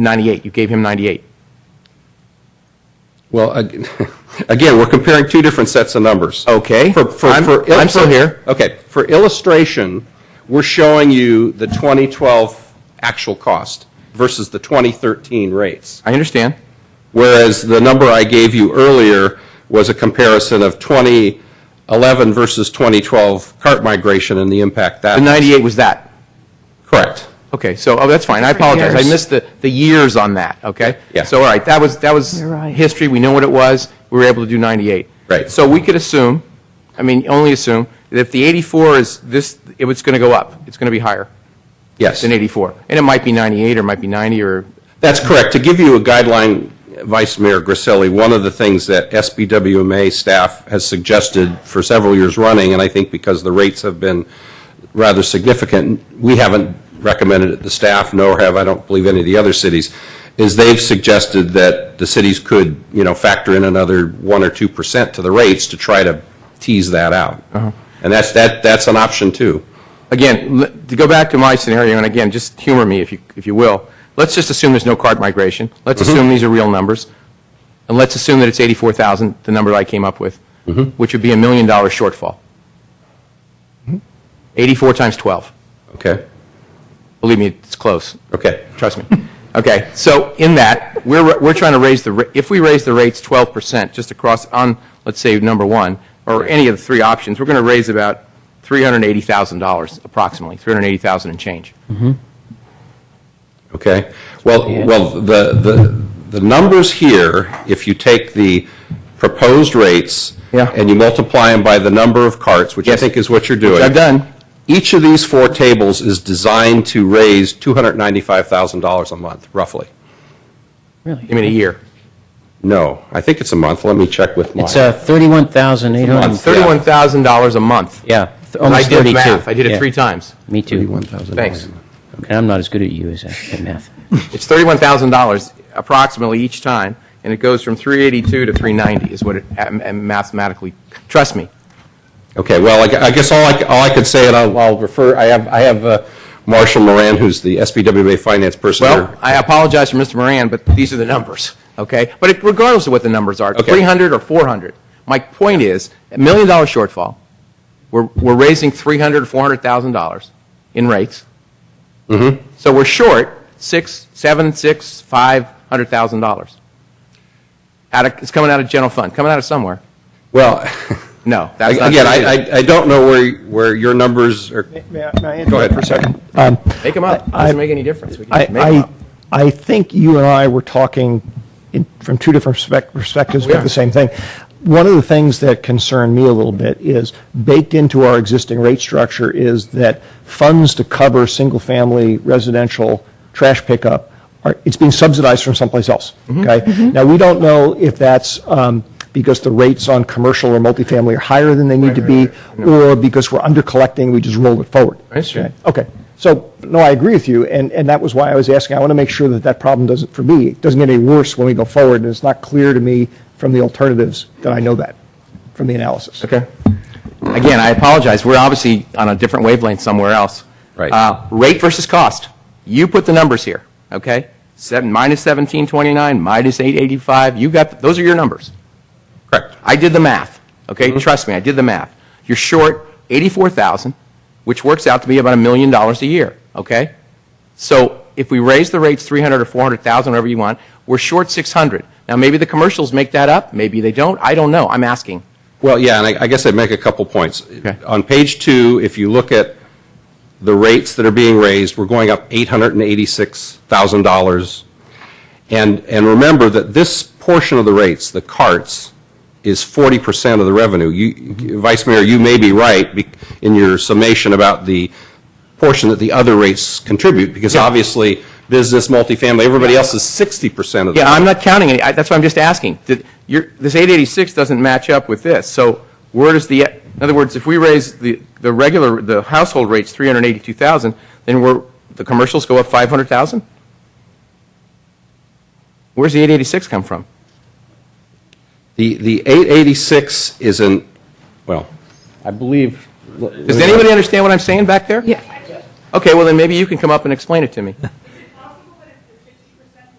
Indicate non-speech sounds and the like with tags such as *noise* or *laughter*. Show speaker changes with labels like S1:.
S1: 98, you gave him 98.
S2: Well, ag- *laughs* again, we're comparing two different sets of numbers.
S1: Okay.
S2: For- for-
S1: I'm-
S2: for il-
S1: I'm still here.
S2: Okay, for illustration, we're showing you the 2012 actual cost versus the 2013 rates,
S1: I understand.
S2: whereas the number I gave you earlier was a comparison of 2011 versus 2012 cart migration and the impact
S1: The
S2: that,
S1: 98 was that.
S2: correct.
S1: Okay, so, oh, that's fine, I
S3: Different
S1: apologize, I
S3: years.
S1: missed the, the years on that, okay?
S2: Yeah.
S1: So, all right, that was, that was
S3: You're right.
S1: history, we know what it was, we were able to do 98.
S2: Right.
S1: So we could assume, I mean, only assume, that if the 84 is this, it was going to go up, it's going to be higher
S2: Yes.
S1: than 84. And it might be 98, or it might be 90, or,
S2: That's correct. To give you a guideline, Vice Mayor Griselli, one of the things that SBWMA staff has suggested for several years running, and I think because the rates have been rather significant, we haven't recommended it to staff, nor have, I don't believe, any of the other cities, is they've suggested that the cities could, you know, factor in another 1 or 2% to the rates to try to tease that out. And that's, that that's an option, too.
S1: again, l- to go back to my scenario, and again, just humor me if you, if you will, let's just assume there's no card migration, let's assume these are real numbers, and let's assume that it's 84,000, the number that I came up with, which would be a million dollar shortfall. 84 times 12.
S2: Okay?
S1: Believe me, it's close.
S2: Okay.
S1: Trust me. Okay, so in that, we're, we're trying to raise the, ra- if we raise the rates 12% just across on, let's say, number one, or any of the three options, we're going to raise about $380,000 approximately, 380,000 and change.
S2: Okay, well, well, the, the, the numbers here, if you take the proposed rates.
S1: Yeah.
S2: And you multiply them by the number of carts, which I
S1: Yes.
S2: think is what you're doing.
S1: I've done.
S2: Each of these four tables is designed to raise $295,000 a month, roughly.
S1: You mean a year?
S2: No, I think it's a month, let me check with Mike.
S4: It's uh, 31,800.
S2: Month.
S1: $31,000 a month.
S4: Yeah, th-
S1: I
S4: almost 32.
S1: did the math. I did it
S4: Yeah,
S1: three times.
S4: Me too.
S1: Thanks.
S4: And I'm not as good at you as I- at math.
S1: It's $31,000 approximately each time, and it goes from 382 to 390 is what it am- am- mathematically, trust me.
S2: Okay, well, I gu- I guess all I, c- all I could say, and I'll, I'll refer, I have, I have uh, Marshall Moran, who's the SBWA finance person. here.
S1: Well, I apologize for Mr. Moran, but these are the numbers, okay? But it- regardless of what the numbers are,
S2: Okay.
S1: 300 or 400, my point is, a million dollar shortfall, we're, we're raising 300, or 400,000 dollars in rates.
S2: Mm-hmm.
S1: So we're short six, seven, six, five hundred thousand dollars. Out of, it's coming out of general fund, coming out of somewhere.
S2: Well,
S1: No, that's not.
S2: Again, *laughs* I,
S1: true.
S2: I- I don't know where, where your numbers are,
S5: May I- may I
S2: go
S5: interrupt
S2: ahead for a second.
S1: Make them up. It
S5: I-
S1: Doesn't make any difference. We can
S5: I,
S1: just make 'em
S5: I,
S1: up.
S5: I think you and I were talking in, from two different spec- perspectives
S1: are.
S5: about the same thing. One of the things that concerned me a little bit is baked into our existing rate structure is that funds to cover single-family residential trash pickup are, it's being subsidized from someplace else,
S1: Mm-hmm.
S5: okay? Now, we don't know if that's um, because the rates on commercial or multifamily are higher than they need to be, or because we're under-collecting, we just roll it forward.
S1: I see.
S5: okay? Okay, so, no, I agree with you, and, and that was why I was asking, I want to make sure that that problem doesn't, for me, it doesn't get any worse when we go forward, and it's not clear to me from the alternatives that I know that, from the analysis.
S1: Okay. Again, I apologize. We're obviously on a different wavelength somewhere else.
S2: Right.
S1: Uh, Rate versus cost. You put the numbers here, okay? Seven, minus 1729, minus 885, you got, those are your numbers.
S2: Correct.
S1: I did the math, okay? Trust me, I did the math. You're short 84,000, which works out to be about a million dollars a year, okay? So if we raise the rates 300 or 400,000, whatever you want, we're short 600. Now, maybe the commercials make that up, maybe they don't, I don't know, I'm asking.
S2: Well, yeah, and I, I guess I'd make a couple points. On page two, if you look at the rates that are being raised, we're going up $886,000. And, and remember that this portion of the rates, the carts, is 40% of the revenue. You, Vice Mayor, you may be right be- in your summation about the portion that the other rates contribute, because obviously, business, multifamily, everybody else is 60% of the.
S1: Yeah, I'm not counting any, I- that's why I'm just asking. Did- your- This 886 doesn't match up with this, so where does the, in other words, if we raise the, the regular, the household rates 382,000, then we're, the commercials go up 500,000? Where's the 886 come from?
S2: The, the 886 is an, well, I believe.
S1: Does anybody understand what I'm saying back there?
S3: Yeah.
S1: Okay, well, then maybe you can come up and explain it to me.